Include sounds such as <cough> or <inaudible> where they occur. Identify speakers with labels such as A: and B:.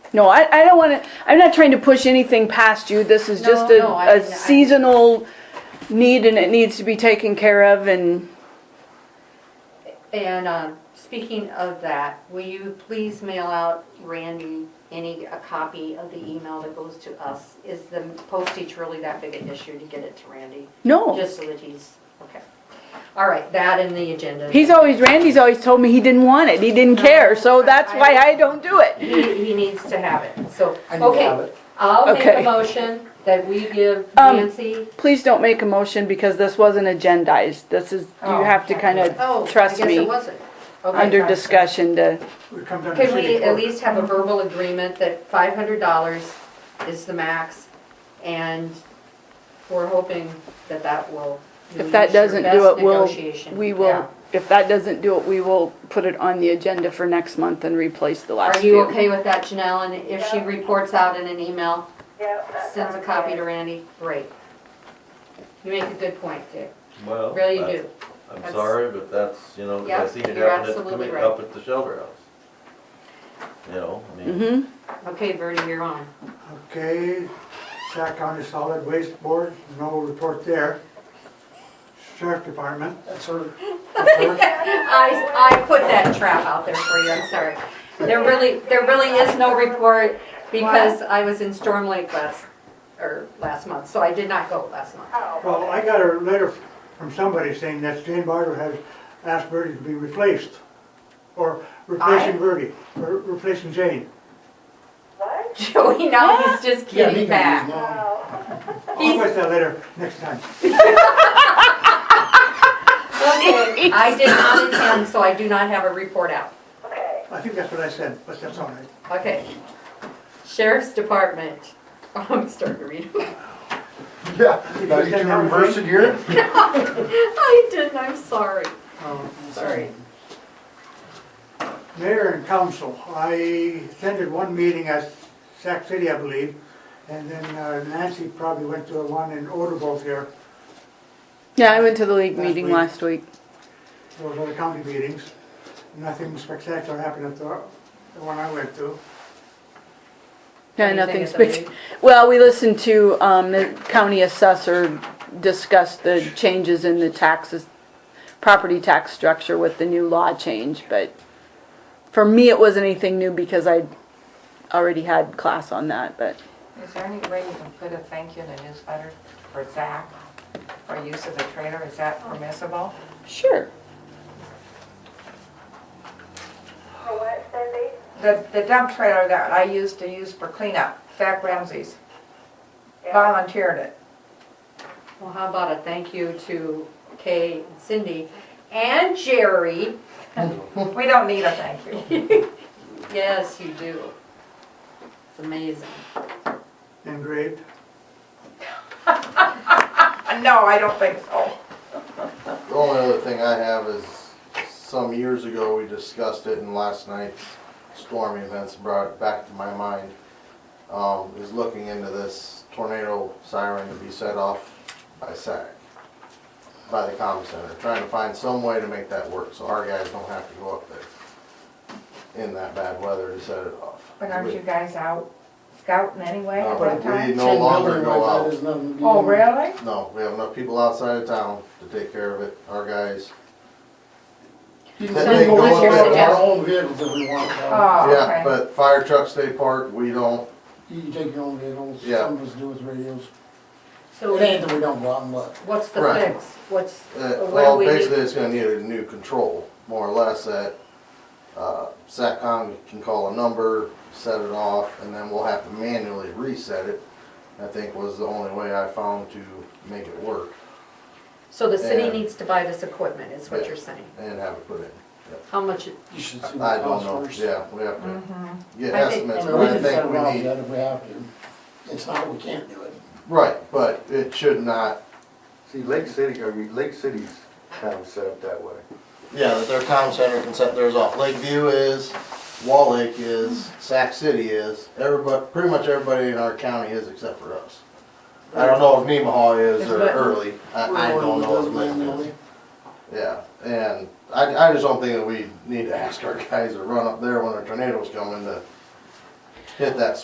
A: No, I, I don't wanna, I'm not trying to push anything past you, this is
B: No,
A: just
B: no, I-
A: a,
B: I-
A: a seasonal need and it needs to be taken care of and,
B: And, um, speaking of that, will you please mail out Randy any, a copy of the email that goes to us? Is the postage really that big an issue to get it to Randy?
A: no.
B: Just so that he's, okay. All right, that and the agenda.
A: He's always, Randy's always told me he didn't want it, he didn't
B: No,
A: care, so
B: I-
A: that's
B: I-
A: why I don't do it.
B: He, he needs to have it, so,
C: I need to have
B: okay.
C: it.
B: I'll make a
A: Okay.
B: motion that we give
A: Um,
B: Nancy.
A: Please don't make a motion because this wasn't agendized, this is,
B: Oh,
A: you have to
B: Oh,
A: kinda
B: I
A: trust
B: guess it
A: me,
B: wasn't. Okay,
A: under
B: gotcha.
A: discussion to,
C: We come down to
B: Can we
C: city
B: at
C: court.
B: least have a verbal agreement that five hundred dollars is the max? And we're hoping that that will.
A: If that doesn't do it, we'll-
B: negotiation.
A: we
B: Yeah.
A: will, if that doesn't do it, we will put it on the agenda for next month and replace the last
B: Are you
A: few.
B: okay with that, Janelle? And if she
D: Yeah.
B: reports out in an email,
D: Yeah, that
B: sends a
D: sounds
B: copy
D: good.
B: to Randy? Great. You make a good point, Dick.
E: Well,
B: Really
E: that's-
B: do.
E: I'm
B: That's-
E: sorry, but that's, you know, 'cause
B: Yeah,
E: I seen it
B: you're
E: happen at the,
B: absolutely
E: commu-
B: right.
E: up at the shelter house. You know, I mean,
A: Mm-hmm.
B: Okay, Verdi, you're on.
C: Okay, Sac County Solid Waste Board, no report there. Sheriff Department. That's her.
B: I, I put that trap out there for you, I'm sorry. There really, there really is no report because I was in Storm Lake last, or last month, so I did not go last month.
C: <laughs> Well, I got a letter from somebody saying that Jane Bartle has asked Verdi to be replaced. Or replacing
B: I?
C: Verdi, or replacing Jane.
B: <laughs>
D: What?
B: Joey, now he's just kidding back.
D: Oh,
C: I'll
B: He's-
C: write that letter next time.
B: Okay, I did not attend, so I do not have a report out.
D: okay.
C: I think that's what I said, but that's all right.
B: Okay. Sheriff's Department, <laughs> Oh, I'm starting to read. <laughs>
F: <laughs>
G: Yeah, now you can reverse it here.
B: I didn't, I'm sorry,
C: Oh,
B: sorry.
C: Mayor and council, I attended one meeting at Sac City, I believe, and then uh, Nancy probably went to the one in Odubel here,
A: Yeah, I went to the league meeting
C: Last
A: last week.
C: those other county meetings. Nothing spectacular happened at the, the one I went to.
A: Yeah,
B: Anything
A: nothing
B: at the meeting?
A: spectacular. <laughs> Well, we listened to, um, the county assessor discuss the changes in the taxes, property tax structure with the new law change, but for me, it wasn't anything new because I already had class on that, but
H: Is there any way you can put a thank you in the newsletter for Zach for use of the trailer? Is that permissible?
A: sure.
D: For what, Cindy?
H: The, the dump trailer that I used to use for cleanup, Zach Ramsey's
D: Yeah.
H: volunteered it.
B: Well, how about a thank you to Kay, and Cindy, and Jerry?
H: We don't need a thank you.
B: Yes, you do. It's amazing.
C: Engraved.
H: Uh, No, I don't think so.
G: The only other thing I have is, some years ago, we discussed it in last night's storm events brought it back to my mind. Um, is looking into this tornado siren to be set off by SAC, by the comm center, trying to find some way to make that work, so our guys don't have to go up there in that bad weather to set it off.
H: But aren't you guys out scouting anyway
G: No,
H: at
G: but
H: that
G: we
H: time?
G: no longer go out.
H: Oh, really?
G: No, we have enough people outside of town to take care of it, our guys.
B: go what's your
G: up there.
B: suggestion?
F: own vehicles if we want. uh,
H: Oh,
G: Yeah,
H: okay.
G: but fire trucks stay parked, we don't,
F: You can take your own vehicles,
G: Yeah.
F: some of us do with radios.
B: So
F: It ain't that we don't want them, but
B: what's the
G: Right.
B: fix? What's,
G: uh,
B: what do
G: well,
B: we
G: basically
B: need?
G: it's gonna need a new control, more or less, that, uh, SATCOM can call a number, set it off, and then we'll have to manually reset it, I think was the only way I found to make it work
B: So the city
G: Yeah.
B: needs to buy this equipment, is what
G: Yeah.
B: you're saying?
G: and have it put in.
B: How much, it-
F: you should see
G: I
F: what
G: don't
F: costs
G: know,
F: first.
G: yeah, we have to
H: Mhm.
G: get
B: Mm-hmm. I think-
G: estimates,
F: I
G: but
F: mean, we
G: I
F: can set
G: think
F: it
G: we
F: off
G: need.
F: yet if we have to. It's not that we can't do it.
G: Right, but it should not,
I: See, Lake City, I mean, Lake City's kind of set up that way.
G: yeah, that their town center can set theirs off. Lakeview is, Wall Lake is,
B: Mm-hmm.
G: Sac City is, everybody, pretty much everybody in our county is except for us. I don't know if Nemaha is or
B: But-
G: Early, I, I don't
F: It
G: know if
F: doesn't
G: Lakeview
F: matter.
G: is. Yeah, and I, I just don't think that we need to ask our guys to run up there when a tornado's coming to hit that